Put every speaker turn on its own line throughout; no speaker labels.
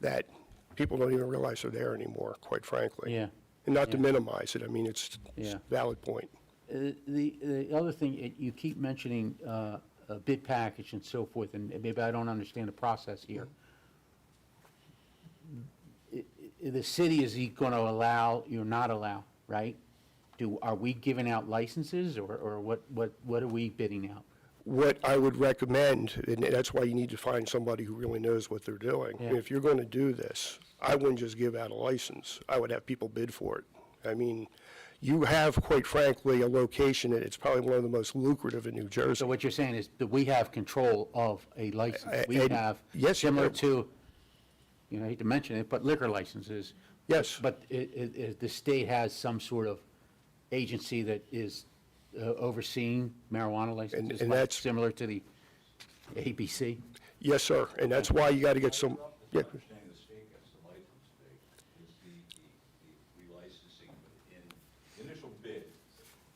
that people don't even realize are there anymore, quite frankly.
Yeah.
And not to minimize it, I mean, it's it's
Yeah.
a valid point.
Uh, The, the other thing, it- you keep mentioning uh, a bid package and so forth, and maybe I don't understand the process here. I- i- The city is going to allow, you're not allow, right? Do, are we giving out licenses, or, or what, what, what are we bidding out?
What I would recommend, and that's why you need to find somebody who really knows what they're doing.
Yeah.
If you're going to do this, I wouldn't just give out a license. I would have people bid for it. I mean, you have, quite frankly, a location that it's probably one of the most lucrative in New Jersey.
So what you're saying is that we have control of a license?
I-
We
and-
have,
yes, you
similar
do.
to, you know, I hate to mention it, but liquor licenses.
Yes.
But i it, it, the state has some sort of agency that is uh, overseeing marijuana licenses,
and
like
that's-
similar to the ABC?
Yes, sir, and that's why you got to get some, yeah,
My understanding of the state gets the license fee, is the, the- the relicensing, but in the initial bid,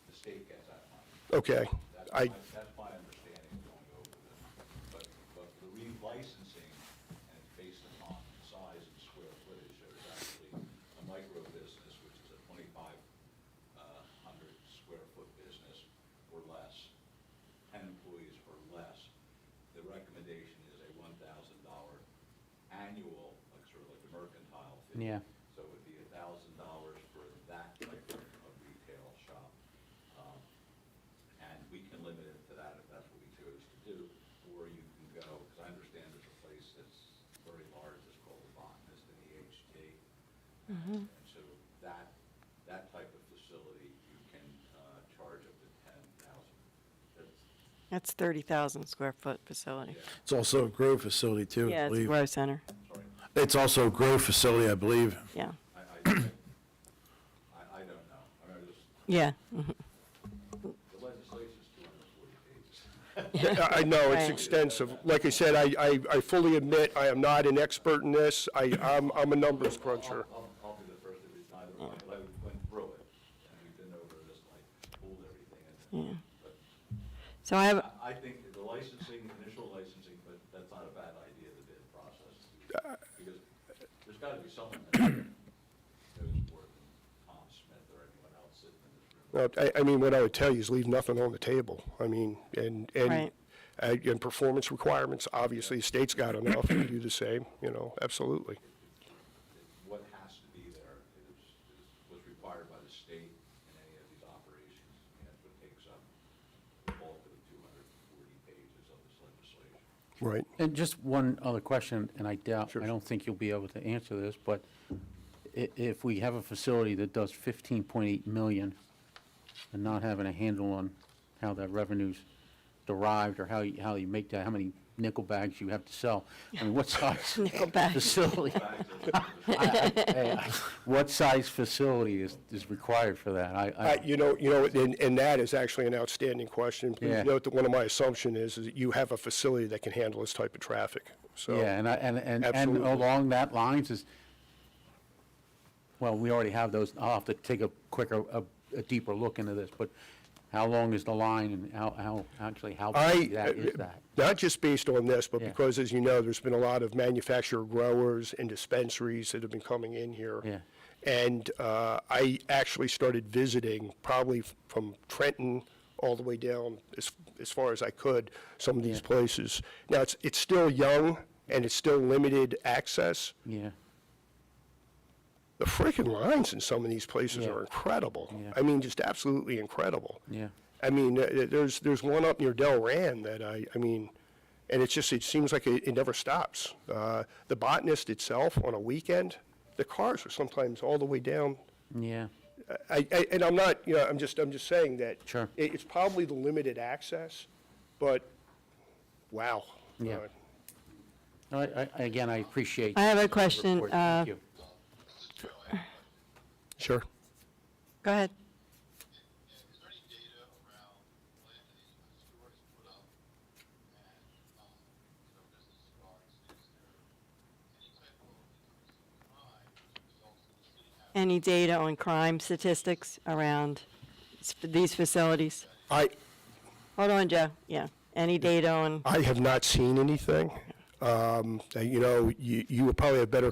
the state gets that money.
okay.
That's
I,
my, that's my understanding going over this. But, but the relicensing, and it's based upon size and square footage, there's actually a micro business, which is a twenty-five uh, hundred square foot business or less, ten employees or less. The recommendation is a one thousand dollar annual, like sort of like a mercantile fee.
Yeah.
So it would be a thousand dollars for that type of of retail shop. Um, and we can limit it to that if that's what we chose to do, or you can go, because I understand there's a place that's very large, it's called the Botanist in the HT. And so that, that type of facility, you can uh, charge up to ten thousand. That's,
That's 30,000 square foot facility.
It's also a grow facility too, I
Yeah, it's a
believe.
grow center,
sorry,
It's also a grow facility, I believe.
yeah,
I, I, I, I don't know. I mean, there's,
yeah. mhm.
the legislation's two hundred and forty pages.
I I know, it's
Right.
extensive. Like I said, I, I I fully admit, I am not an expert in this. I, I'm, I'm a numbers cruncher.
I'll, I'll be the first to be neither one, but I went through it, and we've been over this, like, pulled everything.
Hmm.
and- But
So I have,
I, I think that the licensing, initial licensing, but that's not a bad idea, the bid process. Because there's gotta be someone that knows more than Tom Smith or anyone else sitting in this room.
Well, I, I mean, what I would tell you is leave nothing on the table. I mean, and, and,
Right.
uh, and performance requirements, obviously, the state's got enough to do the same, you know, absolutely.
What has to be there is, is what's required by the state in any of these operations. And that's what takes up the bulk of the two hundred and forty pages of this legislation.
Right.
And just one other question, and I doubt,
Sure.
I don't think you'll be able to answer this, but i- if we have a facility that does fifteen point eight million and not having a handle on how that revenue's derived or how you, how you make that, how many nickel bags you have to sell, I mean, what size
Nickel bags.
facility?
Back to the-
Hey, I- What size facility is, is required for that? I,
Uh,
I,
you know, you know, and, and that is actually an outstanding question. Please
Yeah.
note that one of my assumption is, is that you have a facility that can handle this type of traffic, so.
yeah, and I, and, and, and
Absolutely.
along that lines is, well, we already have those, I'll have to take a quicker, a, a deeper look into this, but how long is the line and how, how, actually, how
I, uh,
big that is that?
not just based on this, but
Yeah.
because, as you know, there's been a lot of manufacturer growers and dispensaries that have been coming in here.
Yeah.
And uh, I actually started visiting, probably f- from Trenton all the way down, as, as far as I could, some of these places. Now, it's, it's still young, and it's still limited access.
Yeah,
The freaking lines in some of these places
Yeah.
are incredible.
Yeah.
I mean, just absolutely incredible.
yeah,
I mean, th- th- there's, there's one up near Del Ran that I, I mean, and it's just, it seems like it, it never stops. Uh, the botanist itself on a weekend, the cars are sometimes all the way down.
yeah,
I, I, and I'm not, you know, I'm just, I'm just saying that.
Sure.
It, it's probably the limited access, but wow.
Yeah.
Uh,
No, I, I, again, I appreciate.
I have a
the
question,
report.
uh,
Thank you.
Sure.
go ahead.
Is there any data around when the store is put up and, um, you know, business starts? Is there any type of increase in crime as a result of the city having
Any data on crime statistics around s- these facilities?
I,
Hold on, Joe, yeah. Any data on?
I have not seen anything. Um, uh, you know, you, you would probably have better